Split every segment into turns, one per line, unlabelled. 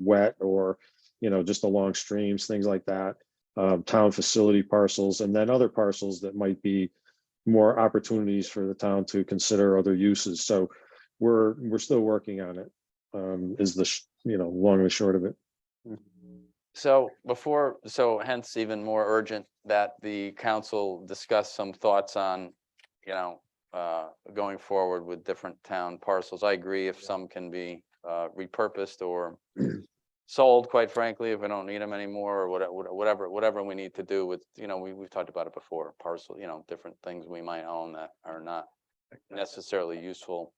wet or, you know, just along streams, things like that. Um, town facility parcels and then other parcels that might be more opportunities for the town to consider other uses. So we're, we're still working on it. Um, is the, sh- you know, long and short of it.
So before, so hence even more urgent that the council discuss some thoughts on, you know, uh, going forward with different town parcels. I agree if some can be uh, repurposed or sold, quite frankly, if we don't need them anymore or whate- whate- whatever, whatever we need to do with, you know, we, we've talked about it before, parcel, you know, different things we might own that are not necessarily useful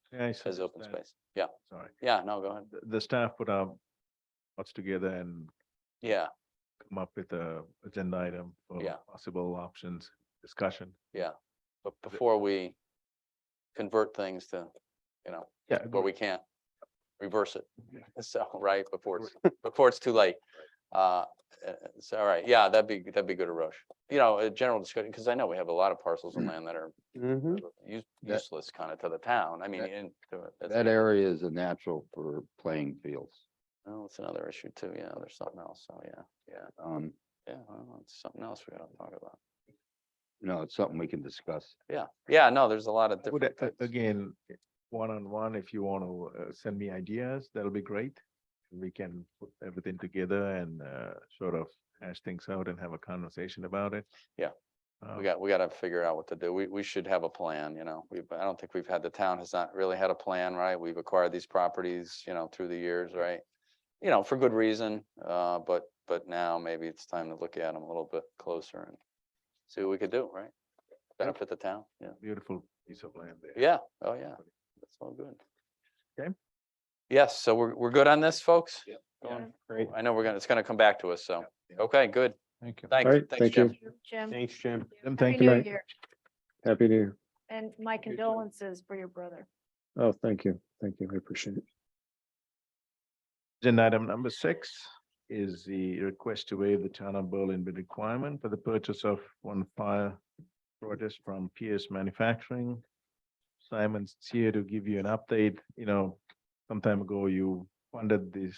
as open space. Yeah,
Sorry,
yeah, no, go ahead.
the, the staff put our thoughts together and
Yeah,
come up with a agenda item for
Yeah.
possible options, discussion.
but before we convert things to, you know,
Yeah.
but we can't reverse it.
Yeah.
So, right, before it's, before it's too late. Uh, uh, so, all right, yeah, that'd be, that'd be good to rush. You know, a general discussion, because I know we have a lot of parcels of land that are Mm-hmm. use-
That-
useless kind of to the town. I mean,
That-
in.
That area is a natural for playing fields.
Well, it's another issue too. Yeah, there's something else. So, yeah, yeah,
Um,
yeah, well, it's something else we gotta talk about.
you know, it's something we can discuss.
Yeah, yeah, no, there's a lot of
I would,
different
uh,
things.
Again, one-on-one, if you want to send me ideas, that'll be great. We can put everything together and uh, sort of hash things out and have a conversation about it.
Yeah.
Uh,
Oh.
We got, we gotta figure out what to do. We, we should have a plan, you know, we, I don't think we've had, the town has not really had a plan, right? We've acquired these properties, you know, through the years, right? You know, for good reason, uh, but, but now maybe it's time to look at them a little bit closer and see what we could do, right? Benefit the town, yeah,
Beautiful piece of land there.
yeah, oh, yeah, that's all good.
Okay.
Yes, so we're, we're good on this, folks?
Yep.
Going-
Great.
I know we're gonna, it's gonna come back to us, so,
Yeah.
okay, good,
Thank you.
thanks,
right,
thanks,
thank you.
Jim.
Jim.
Thanks, Jim.
Jim,
Happy
thank
New
you.
Good night.
Year,
Happy to hear.
And my
too.
condolences for your brother.
Oh, thank you. Thank you. I appreciate it.
Agenda item number six is the request to waive the town of Berlin bid requirement for the purchase of one fire protest from PS Manufacturing. Simon's here to give you an update, you know, some time ago you funded this,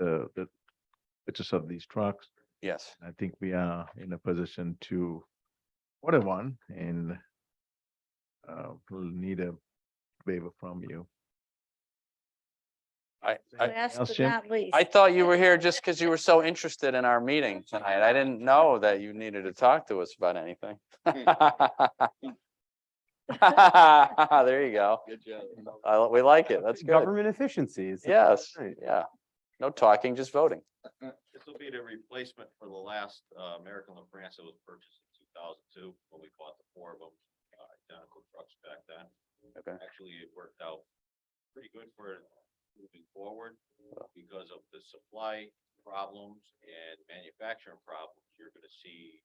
uh, the purchase of these trucks.
Yes.
I think we are in a position to order one and uh, we'll need a waiver from you.
I, I,
Last
else,
but
Jim?
not least.
I thought you were here just because you were so interested in our meeting tonight. I didn't know that you needed to talk to us about anything. There you go.
Good job.
I- we like it. That's good.
Government efficiencies.
Yes,
Right.
yeah. No talking, just voting.
This will be the replacement for the last uh, American La France that was purchased in two thousand two, when we bought the four of them, uh, identical trucks back then.
Okay.
Actually, it worked out pretty good for moving forward because of the supply problems and manufacturing problems you're gonna see.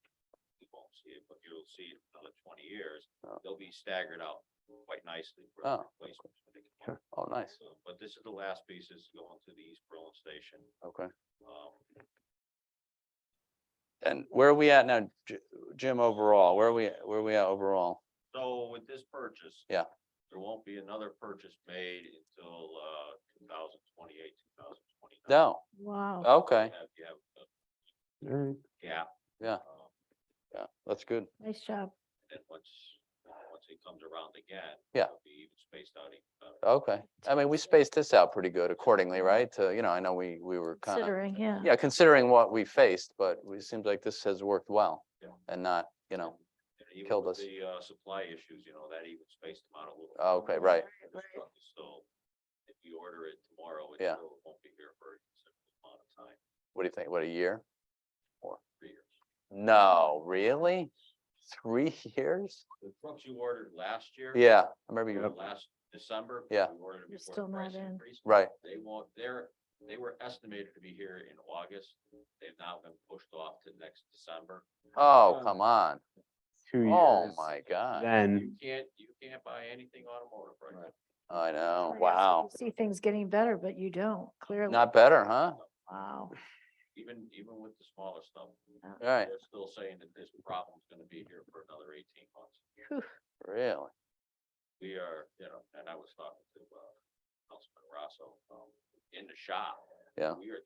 You won't see it, but you'll see it in another twenty years.
Oh.
They'll be staggered out quite nicely for
Oh.
the replacements. when they come.
Oh, nice.
So, But this is the last piece is going to the East Berlin Station.
Okay.
Um,
And where are we at now, J- Jim, overall? Where are we, where are we at overall?
So with this purchase.
Yeah.
There won't be another purchase made until uh two thousand twenty-eight, two thousand twenty-nine.
No,
Wow.
okay,
You have uh, a
All right.
gap.
Yeah.
um,
yeah, that's good.
Nice job.
And then once, once it comes around again.
Yeah. Oh,
it'll Be even spaced out even better.
Okay. I mean, we spaced this out pretty good accordingly, right? To, you know, I know we, we were kind of
Considering, yeah.
Yeah, considering what we faced, but it seems like this has worked well.
Yeah.
And not, you know,
And even
killed us.
with The uh supply issues, you know, that even spaced them out a little.
Oh, okay, right.
And this truck is still, if you order it tomorrow, it
Yeah.
still won't be here for a considerable amount of time,
what do you think? What, a year?
three years.
No,
Um,
really? Three years?
The trucks you ordered last year.
Yeah, I remember
you know,
you,
Last December.
Yeah.
we ordered it
You're
before the
still not
price
in.
increase.
right.
They won't, they're, they were estimated to be here in August. They've now been pushed off to next December.
Oh,
Um,
come on.
Two
Oh,
years.
my God.
Then,
You can't, you can't buy anything automotive right now.
I know.
Right, so
Oh, Wow.
you See things getting better, but you don't, clearly.
Not better, huh?
Wow.
Even, even with the smaller stuff.
Right,
They're still saying that this problem's gonna be here for another eighteen months.
really?
we are, you know, and I was talking to, uh, Councilman Rosso, um, in the shop.
Yeah.
We are